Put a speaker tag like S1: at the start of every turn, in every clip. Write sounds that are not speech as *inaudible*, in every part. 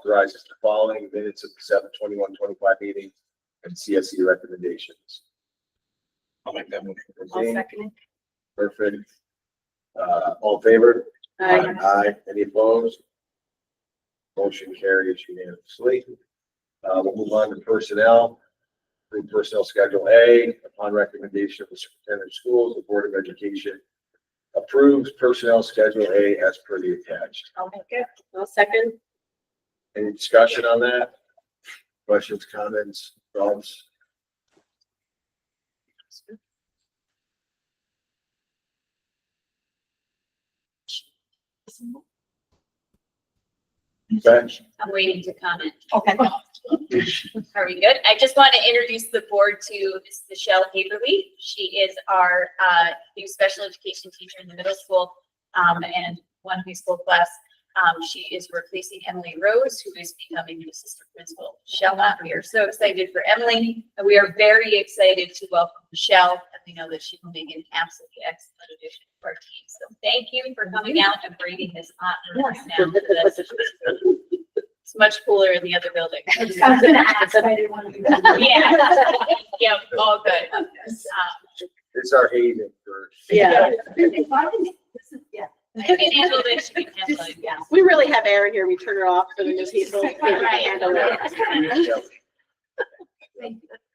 S1: authorizes the following minutes of the seven twenty-one twenty-five meeting and CSE recommendations.
S2: I'll make that motion.
S3: I'll
S1: Jane,
S3: second
S1: Perfect. Uh, all in favor?
S3: it. Aye.
S1: Any opposed? Motion carries unanimously. Uh, we'll move on to personnel. Through personnel schedule A, upon recommendation of the superintendent of schools, the Board of Education approves personnel schedule A as per the attached.
S3: I'll make it. I'll second.
S1: Any discussion on that? Questions, comments, thoughts? Okay.
S4: I'm waiting to comment.
S3: Okay.
S4: *laughs* Are we good? I just want to introduce the board to Ms. Michelle Haverly. She is our uh, new special education teacher in the middle school um, and one high school class. Um, She is replacing Emily Rose, who is becoming the assistant principal. Michelle, uh, we are so excited for Emily. and We are very excited to welcome Michelle. And we know that she will make an absolutely excellent addition to our team. So thank you for coming out and braving this hot. room
S3: Yes.
S4: now with us. It's much cooler in the other building.
S3: I was gonna ask, but I didn't want to *laughs* do that.
S4: Yeah,
S5: *laughs*
S4: yeah, all good. Um,
S1: It's our haven for.
S3: Yeah. *laughs* This is- yeah.
S4: I can handle this, you can handle it,
S5: *laughs*
S4: yeah.
S5: We really have Erin here. We turn her off for the new *laughs* people. We can handle it.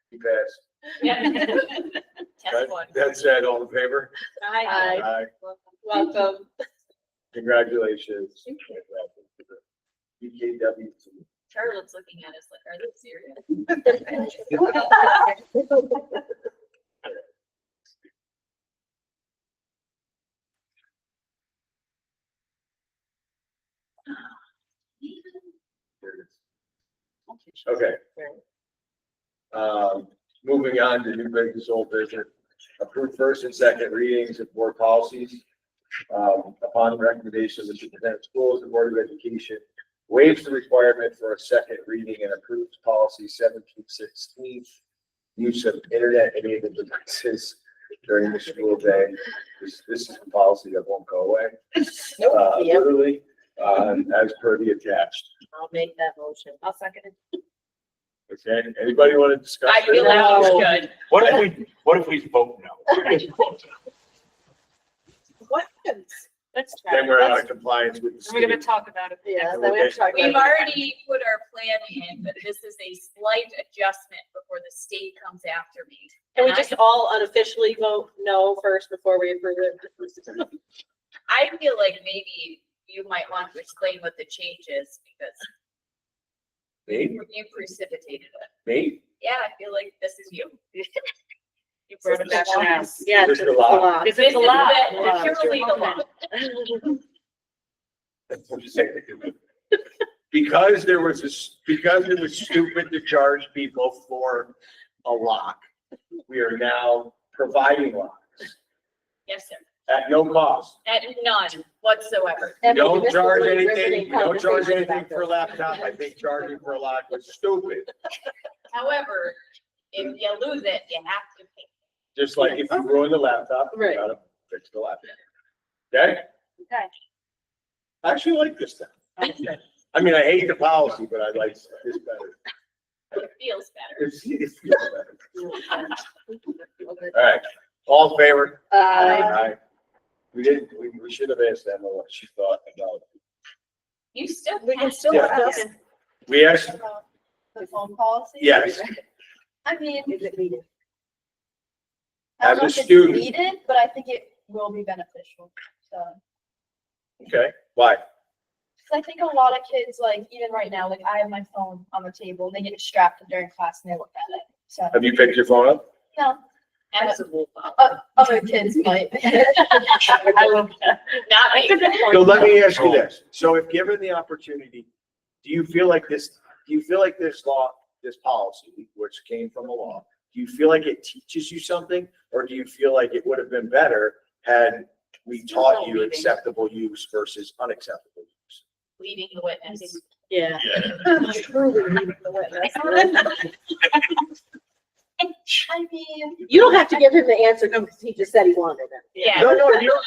S1: You passed.
S4: Yeah. Test one.
S1: That- That said, all in favor?
S4: Aye.
S1: Aye.
S5: Welcome.
S1: Congratulations. BKW.
S4: Charlotte's looking at us like, are they serious?
S1: There it is. Okay. Um, moving on to new business, old business, approved first and second readings of board policies. Um, upon the recommendation of the superintendent of schools, the Board of Education waives the requirement for a second reading and approves policy seventeen sixteen. Use of internet enabled devices during the school day. This, this is a policy that won't go away. Uh,
S5: Yep.
S1: literally, uh, as per the attached.
S5: I'll make that motion.
S3: I'll second it.
S1: Okay, anybody want to discuss?
S4: I
S1: this?
S4: feel like we should.
S2: What if we, what if we vote no?
S5: *laughs* What? Yeah,
S3: Let's try.
S1: Then
S3: it.
S1: we're out
S3: Let's-
S1: of compliance with the
S3: We're gonna
S1: state.
S3: talk about it.
S5: then we have to talk
S4: We've
S5: about it.
S4: already put our plan in, but this is a slight adjustment before the state comes after me.
S5: Can we just all unofficially vote no first before we approve it?
S4: I feel like maybe you might want to explain what the change is because
S1: Me,
S4: you precipitated it.
S1: me,
S4: Yeah, I feel like this is you. *laughs* You
S3: Brought it back now.
S5: Yeah.
S1: Just
S5: it's
S1: a lot.
S5: lot. *laughs*
S3: This
S4: This is
S3: is a lot.
S4: the- purely the law.
S1: I'm just saying. Because there was this, because it was stupid to charge people for a lock, we are now providing locks
S4: Yes, sir.
S1: at no cost.
S4: At none whatsoever.
S1: We
S5: That makes
S1: Don't
S5: this
S1: charge
S5: really
S1: anything,
S5: riveting
S1: we don't charge
S5: conversation
S1: anything
S5: back Uh,
S1: for a laptop. I think charging for a lock was stupid.
S4: However, if you lose it, you have to pay.
S1: Just like if you ruin the laptop, you
S5: Right.
S1: gotta fix the laptop. Okay?
S3: Okay.
S1: I actually like this stuff. I mean, I hate the policy, but I like this better.
S4: It feels better.
S1: It's- it's- All right, all in favor?
S5: Uh,
S1: We didn't, we, we should have asked Emma what she thought about.
S4: You still.
S3: We can
S4: have
S3: still
S1: Yeah.
S3: have it.
S1: We asked,
S3: The phone policy?
S1: Yes.
S3: I mean. Is it needed?
S1: As a student.
S3: Needed, but I think it will be beneficial, so.
S1: okay, why?
S3: Cause I think a lot of kids, like even right now, like I have my phone on the table, they get distracted during class and they look at it. So,
S1: Have you picked your phone up?
S3: no,
S4: Absolutely.
S3: uh, other kids *laughs* might.
S4: Not me.
S1: So let me ask you this. So if given the opportunity, do you feel like this, do you feel like this law, this policy, which came from a law, do you feel like it teaches you something? Or do you feel like it would have been better had we taught you acceptable use versus unacceptable use?
S4: Leading the witness.
S5: yeah.
S3: I mean,
S5: You don't have to give him the answer because he just said he wanted it.
S4: Yeah.
S1: No, no, you don't,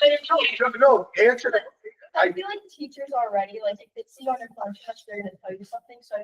S1: no, no, answer the I-
S3: I feel like teachers already, like if they see you on their phone, touch, they're gonna tell you something, so I